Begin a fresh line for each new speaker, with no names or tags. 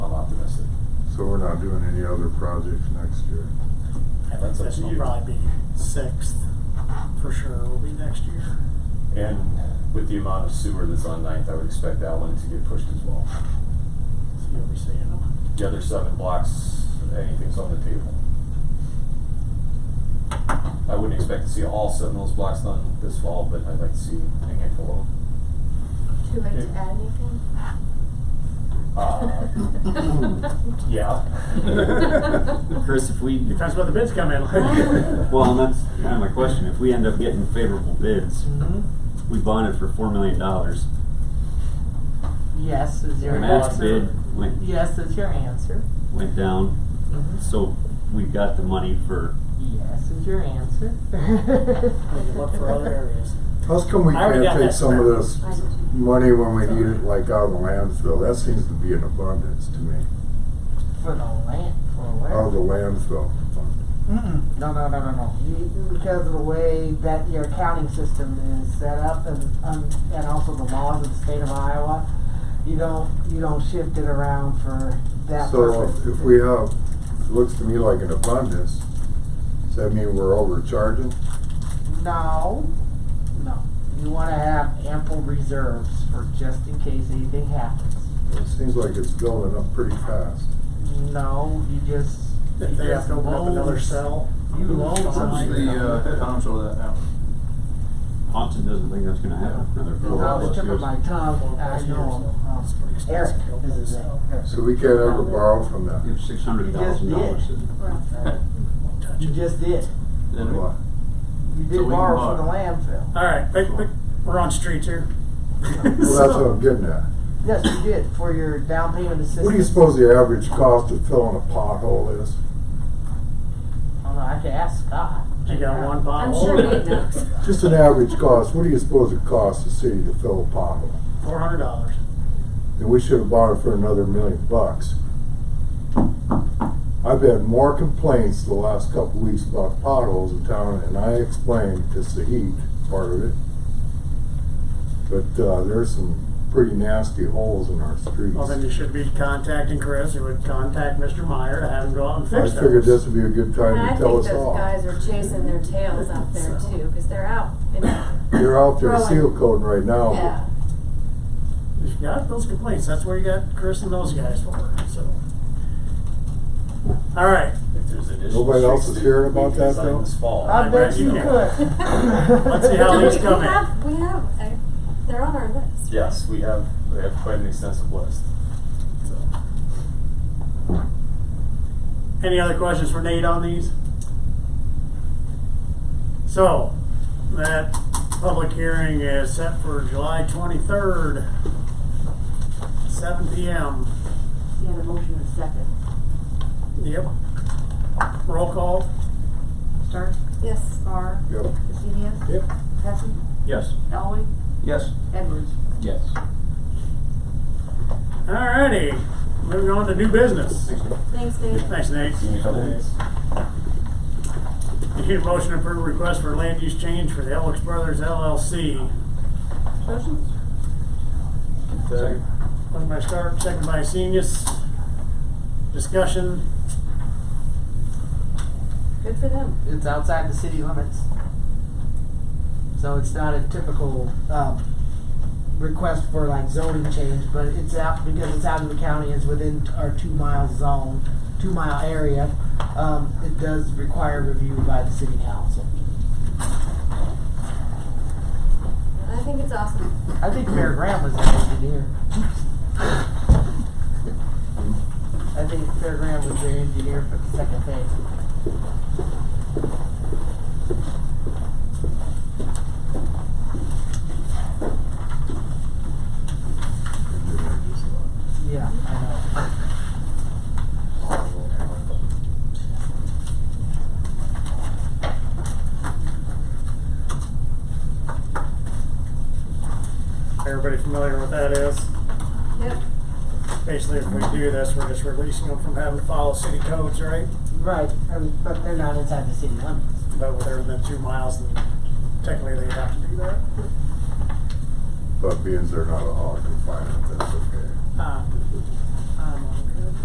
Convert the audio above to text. So we're not doing any other projects next year.
I think
That's up
this
to
will
you.
probably be sixth for sure. Will be next year.
And with the amount of sewer that's on Ninth, I would expect that one to get pushed as well.
So you'll be seeing them.
The other seven blocks, anything's on the table. I wouldn't expect to see all seven of those blocks done this fall, but I'd like to see a handful of them.
Too late to
Yeah.
add anything?
Uh, yeah.
Chris, if we,
Depends what the bids come in.
well, and that's kind of my question. If we end up getting favorable bids,
Mhm.
we bonded for four million dollars.
Yes is your
Our max
answer.
bid went
Yes is your answer.
went down, so we got the money for.
Yes is your answer.
We can look for other areas.
How come we
I already
can't
got
take
that
some of
square.
this
I do too.
money when we need it, like out of the landfill? That seems to be in abundance to me.
For the land, for where?
Out of Oh, the landfill fund.
Mm-mm. No, no, no, no, no. You, because of the way that your accounting system is set up, and um, and also the laws of the state of Iowa, you don't you don't shift it around for that
So
purpose.
if- if we have, it looks to me like an abundance, does that mean we're overcharging?
no, no, you want to have ample reserves for just in case anything happens.
It seems like it's building up pretty fast.
No, you just you
If they have
just
to open up another
load-
cell.
You load
Where's
somebody.
the uh, town show that now?
Austin doesn't think that's going to happen for another
Well,
four
I was
plus
tripping
years.
my
Uh,
tongue. I know. um,
It's pretty expensive
Eric
to open
is
this
his
cell.
name.
So we can't ever borrow from that?
You have six hundred thousand dollars.
Won't touch
You
it.
just did.
Then
Why?
You
So
did
we can
borrow from the
borrow.
landfill.
All right, quick, quick. We're on streets here.
Well, that's what I'm getting at.
Yes, you did, for your down payment assistance.
What do you suppose the average cost of filling a pothole is?
I don't know, I could ask Scott.
You got one
I'm
bottle.
sure Nate knows.
Just an average cost, what do you suppose it costs the city to fill a pothole?
Four hundred dollars.
And we should have bought it for another million bucks. I've had more complaints the last couple weeks about potholes in town, and I explained it's the heat part of it. But, uh, there's some pretty nasty holes in our streets.
Well, then you should be contacting Chris. You would contact Mr. Meyer to have him go out and
I
fix those.
figured this would be a good
And
time
I
to
think
tell us
those
all.
guys are chasing their tails out there too, because they're out. in the-
You're out there
throwing-
seal coding right now.
Yeah.
You got those complaints. That's where you got Chris and those guys for. So. All right.
If there's additional
Nobody else
streets
is hearing
that we
about
can
that,
sign
though?
This fall.
I bet
bet
you
you
could.
can. Let's see how
No,
these
we-
come
We
in.
have, we have, uh, they're on our list.
Yes, we have, we have quite an extensive list.
So. Any other questions for Nate on these? So, that public hearing is set for July twenty-third, seven P M.
You had a motion and second.
Yep. Roll call.
Stark,
Yes.
Carr,
Yep.
Cassinius,
Yep.
Hessen,
Yes.
Elway,
Yes.
Edwards.
Yes.
Alrighty, moving on to new business.
Thanks, Nate.
Thanks, Nate.
Give me a couple days.
Need a motion to approve request for land use change for the Elks Brothers LLC.
Motion?
Second.
Motion by Stark, second by Senius. Discussion.
Good for them.
It's outside the city limits. So it's not a typical, um, request for like zoning change, but it's out, because it's out of the county, it's within t- our two mile zone, two mile area. Um, it does require review by the city council.
I think it's awesome.
I think Mayor Graham was an engineer. I think Fair Graham was their engineer for the second phase. Yeah, I
uh,
Everybody familiar with that is?
Yep.
Basically, if we do this, we're just releasing them from having to follow city codes, right?
know. Right, um, but they're not inside the city limits.
But they're within two miles, and technically they have to do that.
But being they're not a hog confinement, that's okay.
Uh,